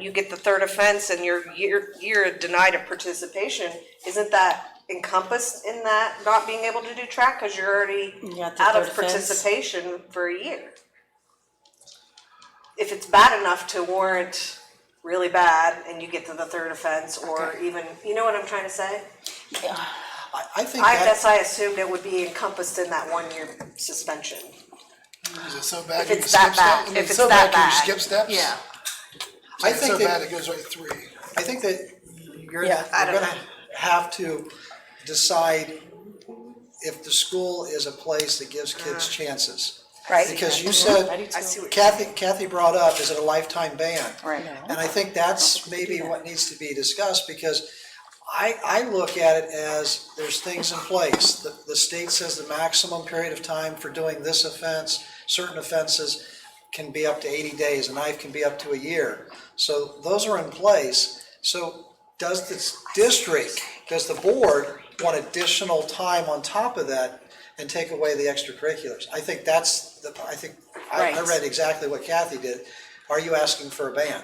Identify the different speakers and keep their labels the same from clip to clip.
Speaker 1: you get the third offense and you're, you're, you're denied a participation, isn't that encompassed in that not being able to do track? Cause you're already
Speaker 2: got the
Speaker 1: out of
Speaker 2: third offense.
Speaker 1: participation for a year. If it's bad enough to warrant really bad and you get to the third offense or even, you know what I'm trying to say?
Speaker 3: I, I think
Speaker 1: I
Speaker 3: that,
Speaker 1: guess I assumed it would be encompassed in that one year suspension.
Speaker 4: Is it so bad
Speaker 1: If
Speaker 4: you can
Speaker 1: it's
Speaker 4: skip
Speaker 1: that bad, if
Speaker 4: steps? Is it
Speaker 1: it's
Speaker 4: so
Speaker 1: that
Speaker 4: bad
Speaker 1: bad.
Speaker 4: you can skip steps?
Speaker 5: Yeah,
Speaker 3: I
Speaker 4: It's so
Speaker 3: think
Speaker 4: bad
Speaker 3: that,
Speaker 4: it goes right three.
Speaker 3: I think that you're, you're
Speaker 2: Yeah,
Speaker 1: I don't
Speaker 3: gonna have to decide if the school is a place that gives kids chances.
Speaker 5: right.
Speaker 3: Because you
Speaker 2: I do
Speaker 3: said,
Speaker 2: too.
Speaker 1: I see what you're
Speaker 3: Kathy, Kathy brought up, is it a lifetime ban?
Speaker 5: Right.
Speaker 3: And I think that's maybe what needs to be discussed, because I, I look at it as, there's things in place. The, the state says the maximum period of time for doing this offense, certain offenses can be up to eighty days, a knife can be up to a year. So those are in place. So does this district, does the board want additional time on top of that and take away the extracurriculars? I think that's, the I think, I, I
Speaker 5: Right.
Speaker 3: read exactly what Kathy did. Are you asking for a ban?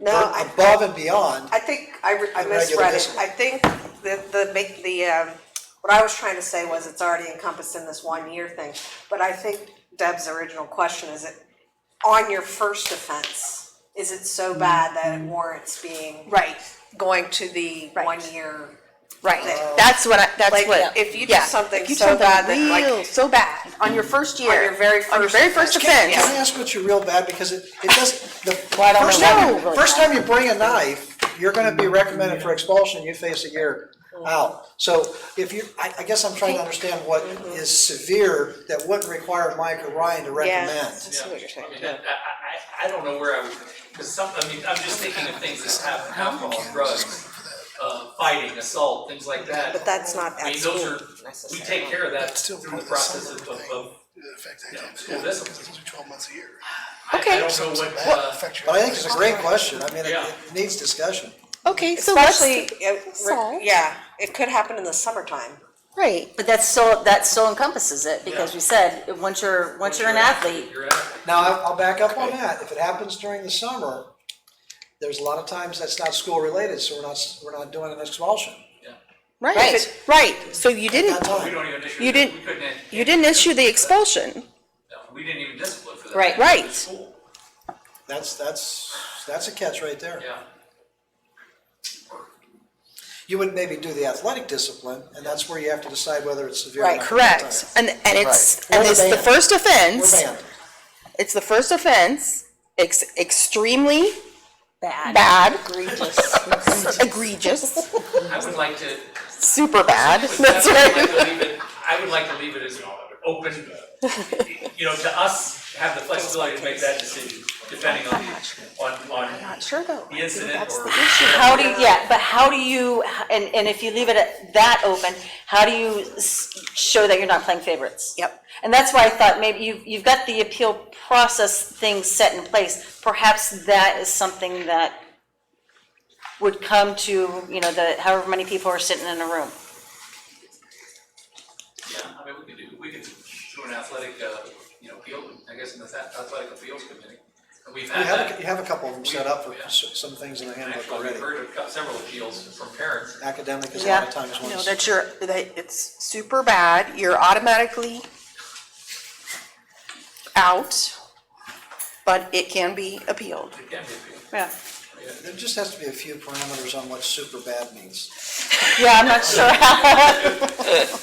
Speaker 1: No, I,
Speaker 3: above and beyond.
Speaker 1: I think I, re- I
Speaker 3: The regular
Speaker 1: misread it. I
Speaker 3: discipline.
Speaker 1: think the, the, make the, um, what I was trying to say was it's already encompassed in this one year thing. But I think Deb's original question is it, on your first offense, is it so bad that it warrants being,
Speaker 5: Right,
Speaker 1: going to the
Speaker 5: Right.
Speaker 1: one year?
Speaker 5: right. That's what I, that's
Speaker 1: Like,
Speaker 5: what.
Speaker 1: if you do
Speaker 5: yeah.
Speaker 1: something
Speaker 5: If you do
Speaker 1: so
Speaker 5: something
Speaker 1: bad that, like-
Speaker 5: real So bad, on your first year.
Speaker 1: your very
Speaker 5: On your
Speaker 1: first
Speaker 5: very first
Speaker 1: offense.
Speaker 5: offense.
Speaker 3: Can I ask what you real bad, because it, it does, the
Speaker 2: Well, I don't
Speaker 3: first
Speaker 2: know why
Speaker 3: time,
Speaker 2: we
Speaker 3: you-
Speaker 2: really-
Speaker 3: first time you bring a knife, you're gonna be recommended for expulsion, you face a year out. So if you, I, I guess I'm trying to understand what
Speaker 2: Mm-hmm.
Speaker 3: is severe that wouldn't require Mike or Ryan to recommend.
Speaker 6: Yeah, I mean, that- I, I, I don't know where I would, because some, I mean, I'm just thinking of things that happen, alcohol, drugs, uh, fighting, assault, things like
Speaker 1: But
Speaker 6: that.
Speaker 1: that's not
Speaker 6: I
Speaker 1: at
Speaker 6: mean, those
Speaker 1: school
Speaker 6: are, we
Speaker 1: necessarily.
Speaker 6: take care of that
Speaker 4: That's still
Speaker 6: through
Speaker 4: part
Speaker 6: the
Speaker 4: of the
Speaker 6: process
Speaker 4: summer
Speaker 6: of,
Speaker 4: thing.
Speaker 6: of, of-
Speaker 4: It affects
Speaker 6: Yeah,
Speaker 4: academics.
Speaker 6: school discipline.
Speaker 4: It's only Twelve months a year.
Speaker 6: I, I
Speaker 5: Okay.
Speaker 6: don't know what,
Speaker 4: That
Speaker 6: uh,
Speaker 4: affects your-
Speaker 3: But I think it's a great question, I mean, it,
Speaker 6: Yeah.
Speaker 3: it needs discussion.
Speaker 5: Okay, so let's,
Speaker 1: Especially, if-
Speaker 5: So-
Speaker 1: yeah, it could happen in the summertime.
Speaker 5: right.
Speaker 2: But that's so, that still encompasses it, because we said, once you're, once you're an athlete,
Speaker 6: you're at.
Speaker 3: Now, I'll, I'll back up on that, if it happens during the summer, there's a lot of times that's not school related, so we're not, s- we're not doing an expulsion.
Speaker 5: Right, right. So you
Speaker 3: At
Speaker 5: didn't,
Speaker 3: that
Speaker 6: We
Speaker 3: time.
Speaker 6: don't even issue.
Speaker 5: You didn't-
Speaker 6: We couldn't.
Speaker 5: you didn't issue the expulsion.
Speaker 6: No, We didn't even discipline for that.
Speaker 2: Right.
Speaker 5: Right.
Speaker 6: The School,
Speaker 3: That's, that's, that's a catch right there.
Speaker 6: yeah.
Speaker 3: You would maybe do the athletic discipline, and that's where you have to decide whether it's severe or
Speaker 5: Right,
Speaker 3: not.
Speaker 5: correct. And, and it's,
Speaker 3: Right.
Speaker 5: and
Speaker 3: We're
Speaker 5: it's the
Speaker 3: banned.
Speaker 5: first
Speaker 3: We're
Speaker 5: offense,
Speaker 3: banned.
Speaker 5: it's the first offense, ex- extremely
Speaker 2: bad.
Speaker 5: bad,
Speaker 2: Egregious.
Speaker 5: egregious,
Speaker 6: I would like to.
Speaker 5: super bad, that's
Speaker 6: I would
Speaker 5: right.
Speaker 6: like to leave it- I would like to leave it as open, you know, to us, have the flexibility to make that decision, depending on, on, on
Speaker 5: Sure though.
Speaker 6: the incident or.
Speaker 2: How do, yeah, but how do you, and, and if you leave it at that open, how do you s- show that you're not playing favorites?
Speaker 5: Yep.
Speaker 2: And that's why I thought maybe you've, you've got the appeal process thing set in place. Perhaps that is something that would come to, you know, the, however many people are sitting in a room.
Speaker 6: Yeah, I mean, we could do, we could do an athletic, uh, you know, appeal, I guess, in the ath- athletic appeals committee. And We've
Speaker 3: You
Speaker 6: had
Speaker 3: have, a-
Speaker 6: that,
Speaker 3: you have a couple of them set up for s- some things in the handbook
Speaker 6: actually, we've
Speaker 3: already.
Speaker 6: heard of several appeals from parents.
Speaker 3: Academic is a lot of times
Speaker 5: No,
Speaker 3: ones.
Speaker 5: that you're, that it's super bad, you're automatically out, but it can be appealed.
Speaker 6: It can be appealed.
Speaker 5: Yeah.
Speaker 3: There just has to be a few parameters on what super bad means.
Speaker 2: Yeah, I'm not sure how.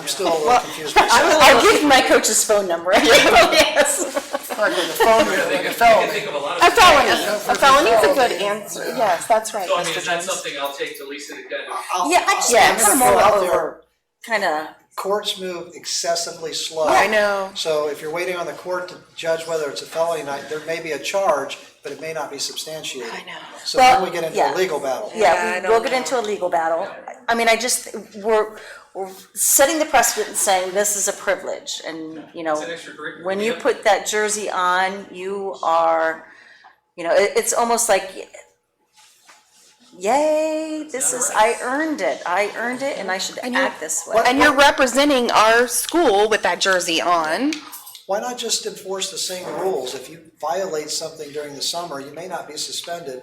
Speaker 3: I'm still a little confused myself.
Speaker 2: I'll give my coach's phone number. Yes.
Speaker 6: I think- I can think of a lot of.
Speaker 5: A felony, a felony's a good answer, Oh, yes, that's right,
Speaker 6: So I mean,
Speaker 5: Mr.
Speaker 6: is that
Speaker 5: Jones.
Speaker 6: something I'll take to Lisa to kind of
Speaker 3: I'll-
Speaker 2: Yeah, I just
Speaker 3: I'm
Speaker 5: Yes.
Speaker 3: gonna
Speaker 2: kind
Speaker 3: throw
Speaker 2: of
Speaker 3: out
Speaker 2: over,
Speaker 3: there,
Speaker 2: kind of.
Speaker 3: Courts move excessively slow.
Speaker 5: I know.
Speaker 3: So if you're waiting on the court to judge whether it's a felony or not, there may be a charge, but it may not be substantiated. I know. So then we get into a
Speaker 2: Well, yeah.
Speaker 3: legal battle.
Speaker 1: Yeah, I
Speaker 2: Yeah, we-
Speaker 1: don't
Speaker 2: we'll get
Speaker 1: know.
Speaker 2: into a legal battle. I mean, I just, we're, we're setting the precedent and saying this is a privilege and, you know.
Speaker 6: an extracurricular,
Speaker 2: When you
Speaker 6: yeah.
Speaker 2: put that jersey on, you are, you know, it, it's almost like, yay, this is, I earned it. I earned it and I should act this way.
Speaker 5: And you're representing our school with that jersey on,
Speaker 3: why not just enforce the same rules? If you violate something during the summer, you may not be suspended,